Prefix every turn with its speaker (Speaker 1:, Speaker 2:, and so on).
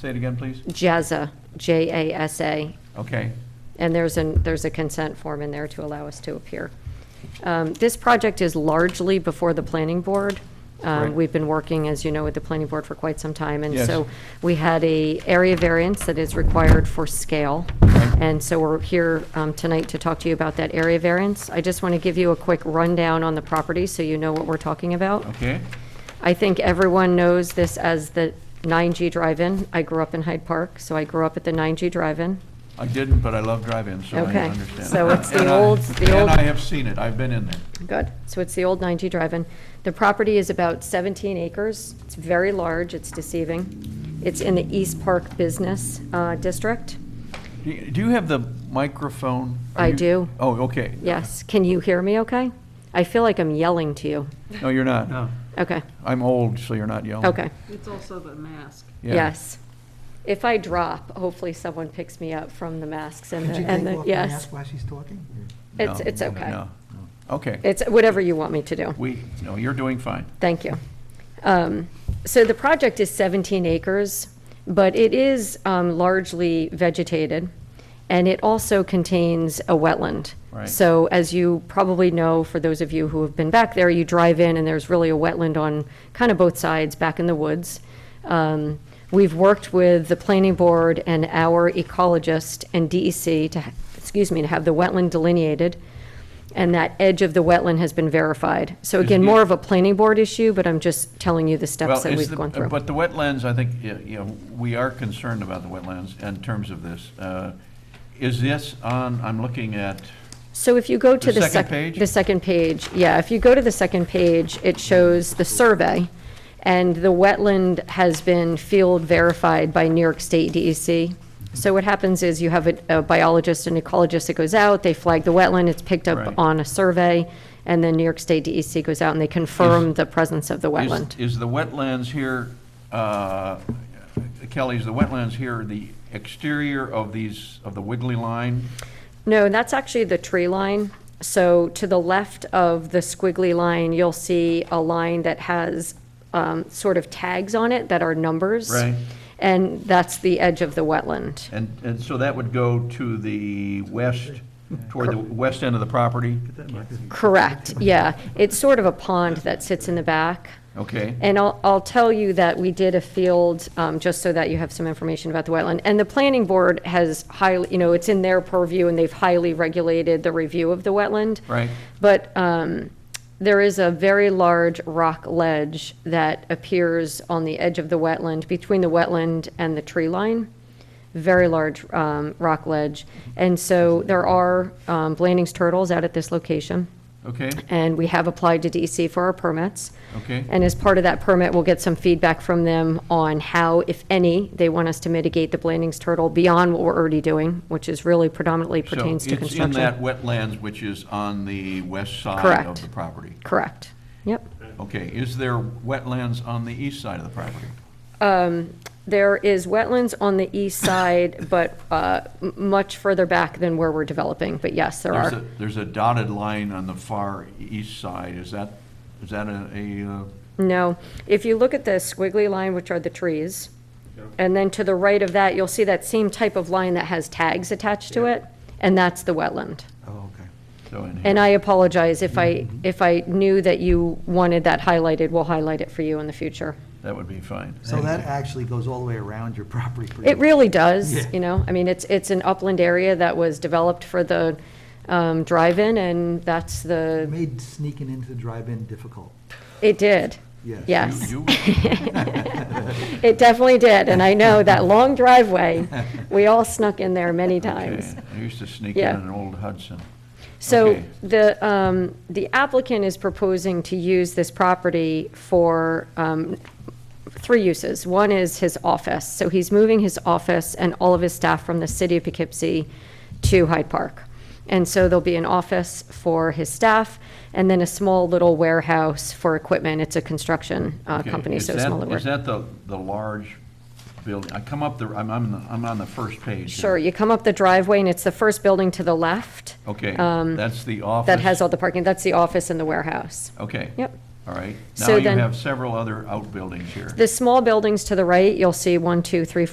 Speaker 1: Say it again, please.
Speaker 2: JASA, J-A-S-A,
Speaker 1: Okay.
Speaker 2: and there's an, there's a consent form in there to allow us to appear. Um, This project is largely before the planning board. Um,
Speaker 1: Right.
Speaker 2: We've been working, as you know, with the planning board for quite some time, and
Speaker 1: Yes.
Speaker 2: so we had a area variance that is required for scale, and so we're here um, tonight to talk to you about that area variance. I just want to give you a quick rundown on the property, so you know what we're talking about.
Speaker 1: Okay.
Speaker 2: I think everyone knows this as the 9G Drive-In. I grew up in Hyde Park, so I grew up at the 9G Drive-In.
Speaker 1: I didn't, but I love drive-ins, so I
Speaker 2: Okay.
Speaker 1: understand.
Speaker 2: So it's the
Speaker 1: And I-
Speaker 2: old- the old-
Speaker 1: And I have seen it. I've been in there.
Speaker 2: Good. So it's the old 9G Drive-In. The property is about 17 acres. It's very large. It's deceiving. It's in the East Park Business uh, District.
Speaker 1: Do you- Do you have the microphone? Are
Speaker 2: I
Speaker 1: you-
Speaker 2: do.
Speaker 1: Oh, okay.
Speaker 2: Yes. Can you hear me okay? I feel like I'm yelling to you.
Speaker 1: No, you're not.
Speaker 3: No.
Speaker 2: Okay,
Speaker 1: I'm old, so you're not yelling.
Speaker 2: okay.
Speaker 4: It's also the mask.
Speaker 1: Oh. Yeah.
Speaker 2: Yes. If I drop, hopefully someone picks me up from the masks and
Speaker 5: Could
Speaker 2: the,
Speaker 5: you
Speaker 2: and
Speaker 5: take
Speaker 2: the,
Speaker 5: off the
Speaker 2: yes.
Speaker 5: mask while she's talking?
Speaker 2: It's,
Speaker 1: No,
Speaker 2: it's
Speaker 1: no,
Speaker 2: okay.
Speaker 1: no. Okay.
Speaker 2: It's whatever you want me to do.
Speaker 1: We, no, you're doing fine.
Speaker 2: Thank you. Um, So the project is 17 acres, but it is um, largely vegetated, and it also contains a wetland.
Speaker 1: Right.
Speaker 2: So as you probably know, for those of you who have been back there, you drive in, and there's really a wetland on kind of both sides, back in the woods. Um, We've worked with the planning board and our ecologist and DEC to, ha- excuse me, to have the wetland delineated, and that edge of the wetland has been verified. So again,
Speaker 1: it-
Speaker 2: more of a planning board issue, but I'm just telling you the steps
Speaker 1: Well,
Speaker 2: that
Speaker 1: it's
Speaker 2: we've
Speaker 1: the- uh,
Speaker 2: gone through.
Speaker 1: But the wetlands, I think, y- you know, we are concerned about the wetlands in terms of this. Uh, Is this on, I'm looking at,
Speaker 2: So if you go
Speaker 1: The
Speaker 2: to the
Speaker 1: second
Speaker 2: second,
Speaker 1: page?
Speaker 2: the second page, yeah, if you go to the second page, it shows the survey, and the wetland has been field verified by New York State DEC. So what happens is you have a a biologist and ecologist that goes out, they flag the wetland, it's picked
Speaker 1: Right.
Speaker 2: up on a survey, and then New York State DEC goes out and they confirm the presence of the
Speaker 1: is-
Speaker 2: wetland.
Speaker 1: is the wetlands here, uh, Kelly, is the wetlands here the exterior of these, of the wiggly line?
Speaker 2: No, that's actually the tree line. So to the left of the squiggly line, you'll see a line that has um, sort of tags on it that are numbers.
Speaker 1: Right.
Speaker 2: And that's the edge of the wetland.
Speaker 1: And, and so that would go to the west, toward the west end of the property?
Speaker 2: Correct, yeah. It's sort of a pond that sits in the back.
Speaker 1: Okay.
Speaker 2: And I'll, I'll tell you that we did a field, um, just so that you have some information about the wetland. And the planning board has highly, you know, it's in their purview and they've highly regulated the review of the wetland.
Speaker 1: Right.
Speaker 2: But um, there is a very large rock ledge that appears on the edge of the wetland, between the wetland and the tree line. Very large um, rock ledge. And so there are um, Blanding's turtles out at this location,
Speaker 1: Okay,
Speaker 2: and we have applied to DEC for our permits.
Speaker 1: okay.
Speaker 2: And as part of that permit, we'll get some feedback from them on how, if any, they want us to mitigate the Blanding's turtle beyond what we're already doing, which is really predominantly pertains to construction.
Speaker 1: So it's in that wetlands which is on the west side of
Speaker 2: Correct.
Speaker 1: the property?
Speaker 2: Correct. Yep.
Speaker 1: Okay, is there wetlands on the east side of the property?
Speaker 2: Um, There is wetlands on the east side, but uh, m- much further back than where we're developing, but yes, there
Speaker 1: There's
Speaker 2: are.
Speaker 1: a- There's a dotted line on the far east side, is that, is that a, a, uh,
Speaker 2: No, if you look at the squiggly line, which are the trees, and then to the right of that, you'll see that same type of line that has tags attached to it, and that's the wetland.
Speaker 5: Oh, okay.
Speaker 1: so in
Speaker 2: And
Speaker 1: here?
Speaker 2: I apologize if I,
Speaker 5: Mm-hmm.
Speaker 2: if I knew that you wanted that highlighted, we'll highlight it for you in the future.
Speaker 1: That would be fine.
Speaker 5: So that actually goes all the way around your property. pretty
Speaker 2: It
Speaker 5: much.
Speaker 2: really does,
Speaker 5: Yeah.
Speaker 2: you know, I mean, it's, it's an upland area that was developed for the um, drive-in, and that's
Speaker 5: It
Speaker 2: the,
Speaker 5: Made sneaking into the drive-in difficult,
Speaker 2: it did.
Speaker 5: yes.
Speaker 2: Yeah.
Speaker 1: You-
Speaker 2: Yes.
Speaker 1: you-
Speaker 2: It definitely did, and I know that long driveway, we all snuck in there many times.
Speaker 1: okay. I used to sneak in
Speaker 2: Yeah.
Speaker 1: an old Hudson.
Speaker 2: So
Speaker 1: Okay.
Speaker 2: the, um, the applicant is proposing to use this property for, um, three uses. One is his office, so he's moving his office and all of his staff from the city of Poughkeepsie to Hyde Park. And so there'll be an office for his staff, and then a small little warehouse for equipment. It's a construction, uh,
Speaker 1: Okay,
Speaker 2: company,
Speaker 1: is
Speaker 2: so
Speaker 1: that-
Speaker 2: smaller.
Speaker 1: Is that the, the large building? I come up the, I'm, I'm, the- I'm on the first page. here.
Speaker 2: Sure, you come up the driveway, and it's the first building to the left
Speaker 1: Okay,
Speaker 2: um,
Speaker 1: that's the office?
Speaker 2: that has all the parking. That's the office and the warehouse.
Speaker 1: Okay.
Speaker 2: Yep.
Speaker 1: All right. Now
Speaker 2: So
Speaker 1: you
Speaker 2: then-
Speaker 1: have several other outbuildings here.
Speaker 2: The small buildings to the right, you'll see one, two, three,